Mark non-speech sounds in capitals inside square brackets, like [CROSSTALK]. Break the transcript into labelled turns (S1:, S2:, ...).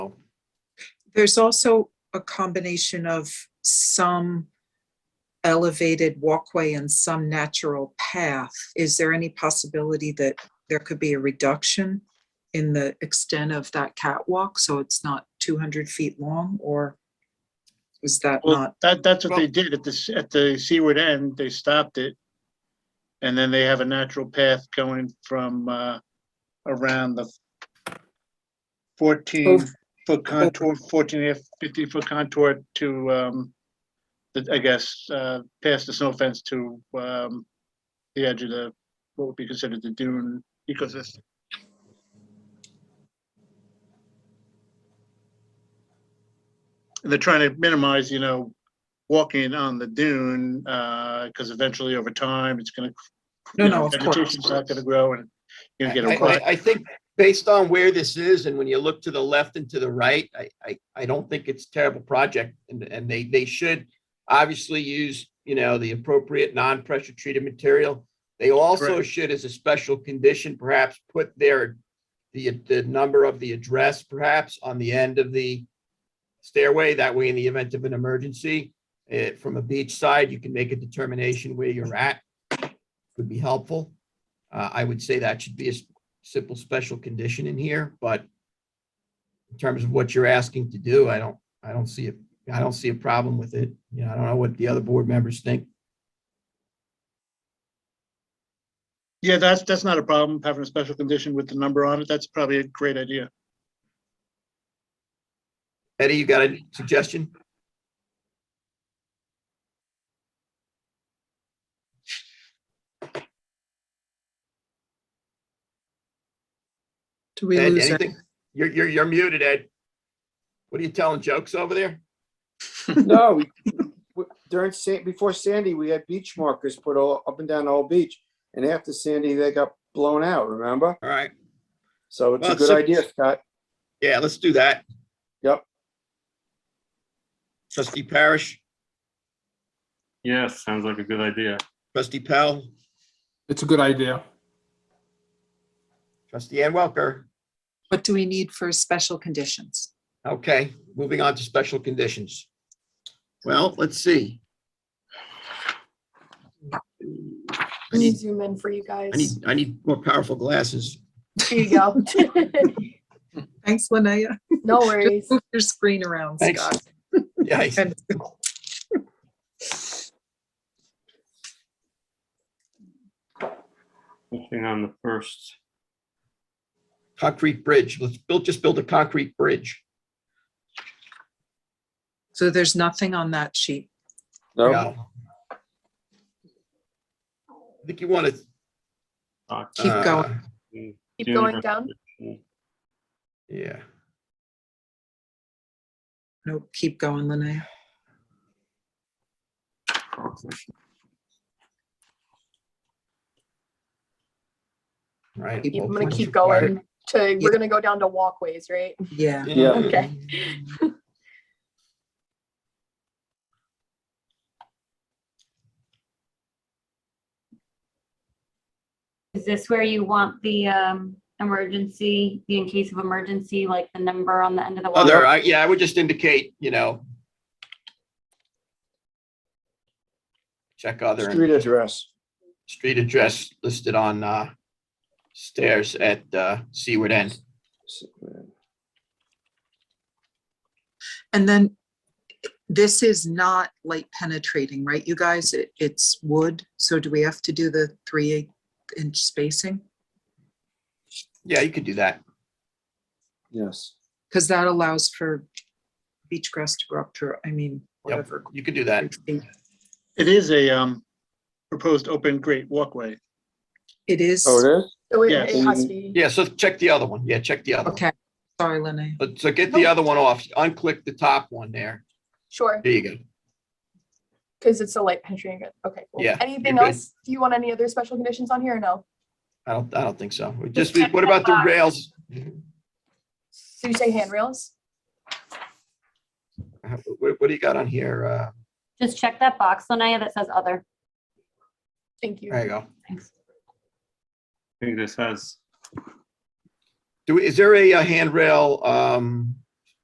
S1: There's also a combination of some elevated walkway and some natural path. Is there any possibility that there could be a reduction in the extent of that catwalk, so it's not two hundred feet long, or is that
S2: Well,
S1: not?
S2: that, that's what
S1: well-
S2: they did at the, s- at the seaward end, they stopped it. And then they have a natural path going from, uh, around the fourteen
S1: Over-
S2: foot contour, fourteen and a half, fifteen foot contour to, um, the- I guess, uh, past the snow fence to, um, the edge of the, what would be considered the dune ecosystem. They're trying to minimize, you know, walking on the dune, uh, because eventually over time, it's gonna.
S1: No,
S2: you know,
S1: no, of course.
S2: Vegetation's not gonna grow and you're gonna
S3: I,
S2: get a rut.
S3: I- I think based on where this is and when you look to the left and to the right, I, I, I don't think it's a terrible project and, and they, they should obviously use, you know, the appropriate non-pressure treated material. They also
S2: Correct.
S3: should, as a special condition, perhaps put their, the, the number of the address perhaps on the end of the stairway. That way, in the event of an emergency, eh, from a beach side, you can make a determination where you're at. Would be helpful. Uh, I would say that should be a s- simple special condition in here, but in terms of what you're asking to do, I don't, I don't see it, I don't see a problem with it. You know, I don't know what the other board members think.
S2: Yeah, that's, that's not a problem, having a special condition with the number on it, that's probably a great idea.
S3: Eddie, you got a suggestion?
S1: Do we
S3: Ed,
S1: lose it?
S3: anything? You're, you're, you're muted, Ed. What are you telling jokes over there?
S4: No, we- we- during Sa- before Sandy, we had beach markers put all up and down the whole beach. And after Sandy, they got blown out, remember?
S3: All right,
S4: So it's
S3: Well,
S4: a good
S3: Oh, so-
S4: idea, Scott.
S3: yeah, let's do that.
S4: Yep.
S3: Trustee Parish,
S5: Yes, sounds like a good idea.
S3: trustee Pell,
S6: It's a good idea.
S3: trustee Ann Welker.
S1: What do we need for special conditions?
S3: Okay, moving on to special conditions. Well, let's see. I
S7: Let me
S3: need,
S7: zoom in for you
S3: I need,
S7: [LAUGHS] guys.
S3: I need more powerful glasses.
S7: There you
S3: [LAUGHS]
S7: go.
S1: Thanks, Linnea. [LAUGHS]
S7: No worries.
S1: Move your screen around,
S3: Thanks.
S1: Scott.
S3: Yeah, I-
S1: And
S5: Nothing on the first.
S3: concrete bridge. Let's build, just build a concrete bridge.
S1: So there's nothing on that sheet.
S4: No,
S3: Yeah. I think you uh, want to.
S5: box.
S1: Keep going.
S7: Keep going down.
S3: Yeah,
S1: No, keep going, Linnea.
S3: right.
S1: Keep-
S7: Keep-
S3: well,
S7: I'm gonna
S3: what's
S7: keep
S3: required?
S7: going to, we're gonna go down to walkways, right?
S1: Yeah.
S4: Yeah.
S7: Okay.
S8: Is this where you want the um emergency, the in case of emergency, like the number on the end of the wall?
S3: Other, Oh, I, yeah, I would just indicate, you know. Check other. and-
S4: street address.
S3: street address listed on uh, stairs at uh, Seaward End.
S1: And then this is not light penetrating, right, you guys? It, it's wood, so do we have to do the three eight inch spacing?
S3: Yeah, you could do that.
S4: Yes.
S1: Because that allows for beach grass to grow up to, I mean, whatever.
S3: You could do that.
S2: It is a, um, proposed open great walkway.
S1: It is,
S4: Oh, it is?
S7: So it-
S2: Yes.
S7: it has to be,
S3: Yeah, so check the other one. Yeah, check the other one.
S1: okay, sorry, Lenny.
S3: But so get
S7: Oh.
S3: the other one off, unclick the top one there.
S7: sure,
S3: There you go.
S7: because it's a light penetrating, okay. cool.
S3: Yeah,
S7: Anything
S3: you're good.
S7: else? Do you want any other special conditions on here or no?
S3: I don't, I don't think so. We Just, what about the rails?
S7: So you say handrails?
S3: Uh, What, what do you got on here? Uh,
S8: Just check that box, Lanaya, that says other.
S7: Thank you.
S3: There you go.
S8: Thanks.
S5: I think this has,
S3: Do, we- is there a uh, handrail um,